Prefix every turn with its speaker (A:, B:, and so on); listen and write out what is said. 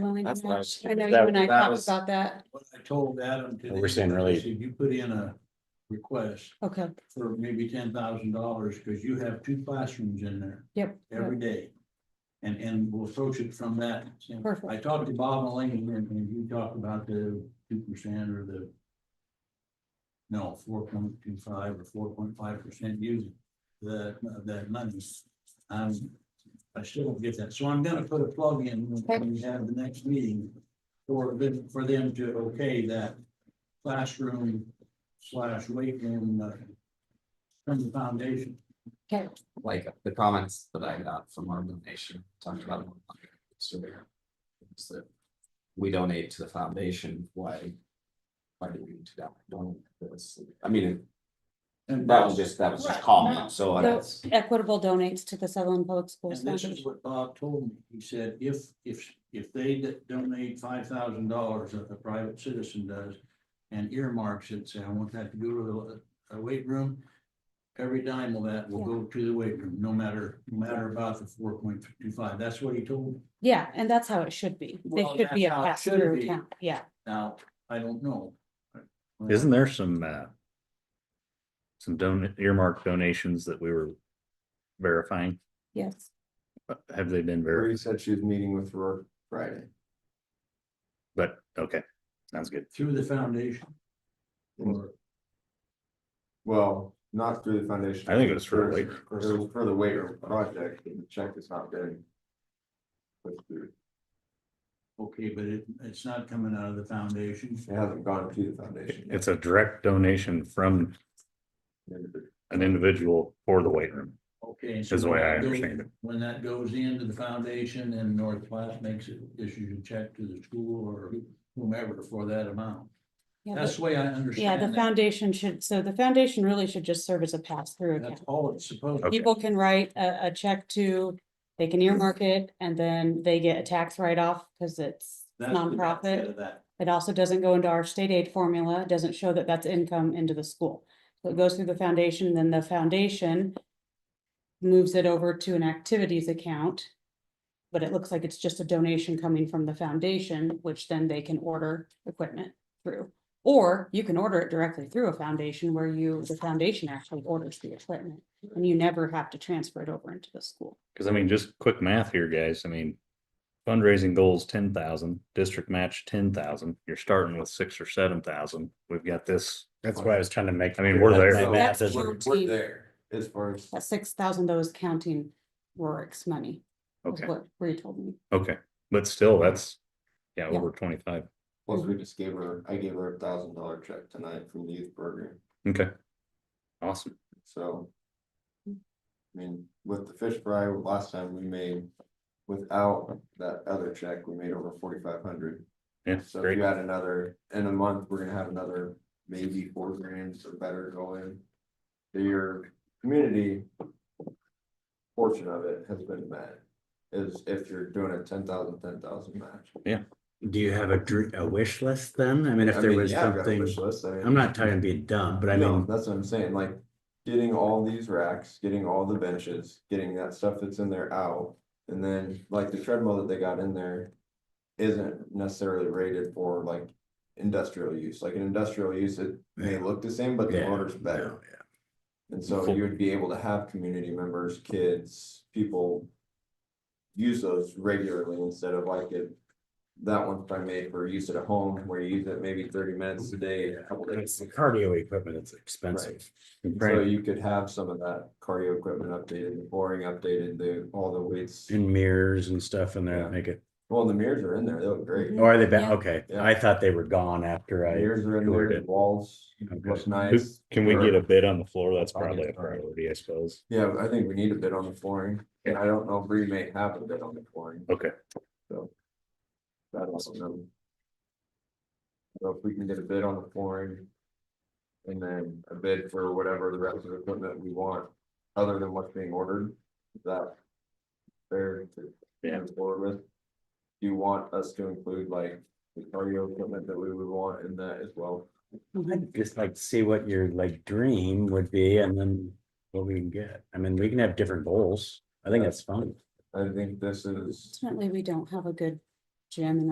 A: Well, I
B: That's
A: know-
B: nice.
A: I know
B: That-
A: you and I
B: that
A: talked
B: was-
A: about that.
C: What I told Adam today.
B: We're saying really-
C: I said, You put in a request
A: Okay,
C: for maybe ten thousand dollars, because you have two classrooms in there.
A: Yep.
C: Every day. And, and we'll approach it from that. standpoint.
A: Perfect.
C: I talked to Bob and Lane, and, and you talked about the two percent or the no, four point two five or four point five percent using the, that money. Um, I still don't get that, so I'm gonna put a plug in when we have the next meeting for them, for them to okay that classroom slash weight room uh, from the foundation.
A: okay,
B: like the comments that I got from our nation talked about. it on my surveyor, is that We donate to the foundation, why? Why do we need to don- donate this? I mean,
C: And
B: that was just, that was just
A: Right.
B: common, so I
A: so
B: guess.
A: equitable donates to the Sutherland Public Schools
C: And this is
A: Foundation.
C: what Bob told me. He said, if, if, if they d- donate five thousand dollars that a private citizen does and earmarks it, say, I want that to go to a, a weight room, every dime of that will go to the weight room, no matter, no matter about the four point two five. That's what he told me.
A: Yeah, and that's how it should be. They
C: Well,
A: should be a
C: that's how it
A: pass
C: should
A: through
C: be.
A: account, yeah.
C: Now, I don't know.
D: Isn't there some, uh, some don earmark donations that we were verifying? Uh,
A: Yes,
D: Have they been
E: Mary
D: verified?
E: said she was meeting with Rourke Friday.
D: But, okay, sounds good.
C: Through the foundation. Or
E: Well, not through the foundation.
D: I think it was for the weight room.
E: It was for the weight room project, and the check is not getting. pushed through.
C: Okay, but it, it's not coming out of the foundation.
E: It hasn't gone to the foundation. yet.
D: It's a direct donation from an individual for the weight room,
C: Okay. so
D: is the way
C: when
D: I
C: that goes-
D: understand it.
C: When that goes into the foundation and North Platte makes it, issues a check to the school or whomever for that amount.
A: yeah,
C: That's
A: but-
C: the way I
A: yeah, the
C: understand that.
A: foundation should, so the foundation really should just serve as a pass through
C: That's
A: account.
C: all it's supposed to
D: Okay.
A: People can write a, a check to, they can earmark it and then they get a tax write-off because it's
C: That's the benefit
A: nonprofit.
C: of that.
A: It also doesn't go into our state aid formula, It doesn't show that that's income into the school. So it goes through the foundation, then the foundation moves it over to an activities account. But it looks like it's just a donation coming from the foundation, which then they can order equipment through. Or you can order it directly through a foundation where you, the foundation actually orders the equipment and you never have to transfer it over into the school.
D: Cause I mean, just quick math here, guys. I mean, fundraising goals, ten thousand, district match, ten thousand. You're starting with six or seven thousand. We've got this.
F: That's why I was trying to make.
D: I mean, we're there.
F: My math
A: That's
F: doesn't-
A: where-
E: We're there as far as.
A: That six thousand, though, is counting Rorick's money, is
D: Okay,
A: what Bree told me.
D: okay. But still, that's, yeah,
A: Yeah.
D: over twenty-five.
E: Plus, we just gave her, I gave her a thousand dollar check tonight from the youth program,
D: Okay. Awesome.
E: so. I mean, with the fish fry, last time we made, without that other check, we made over forty-five hundred.
D: Yeah,
E: So if
D: great.
E: you add another, in a month, we're gonna have another maybe four grand or better going. To your community. Portion of it has been met, is if you're doing a ten thousand, ten thousand match.
F: Do you have a dr- a wish list then? I mean, if
E: I
F: there
E: mean,
F: was
E: yeah, I've got a
F: something,
E: wish list, I mean-
F: I'm not trying to be dumb, but I
E: No,
F: mean,
E: That's what I'm saying, like, getting all these racks, getting all the benches, getting that stuff that's in there out. And then, like, the treadmill that they got in there isn't necessarily rated for like industrial use, like an industrial use, it may look the same, but the
F: Yeah,
E: motor's better.
F: no, yeah.
E: And so you would be able to have community members, kids, people. Use those regularly instead of like it. That one's probably made for use at a home where you use it maybe thirty minutes a
F: Mm-hmm.
E: day, a couple
F: It's
E: days.
F: the cardio equipment, it's expensive.
E: So
D: Right.
E: you could have some of that cardio equipment updated, the boring updated, the, all the weights.
D: Mm-hmm.
F: And mirrors and stuff in there,
E: Yeah.
F: that make it,
E: Well, the mirrors are in there, they look great.
F: or are they back?
A: Yeah.
F: Okay,
E: Yeah.
F: I thought they were gone after I,
E: Mirrors are in
D: Sure
E: there,
D: did.
E: the walls
D: Okay.
E: look nice.
D: Can we get a bid on the floor? That's
E: I'll get
D: probably a
E: it started.
D: priority, I suppose.
E: Yeah, I think we need a bit on the flooring, and I don't know if we may have a bit on the flooring.
D: Okay.
E: So. That also know. So if we can get a bid on the flooring. And then a bid for whatever the rest of the equipment we want, other than what's being ordered, is that. Fair to
D: Yeah.
E: move forward with. Do you want us to include like the cardio equipment that we would want in that as well?
D: Mm-hmm.
F: I'd just like to see what your like dream would be and then what we can get. I mean, we can have different goals. I think that's fun.
E: I think this is.
A: Ultimately, we don't have a good gym in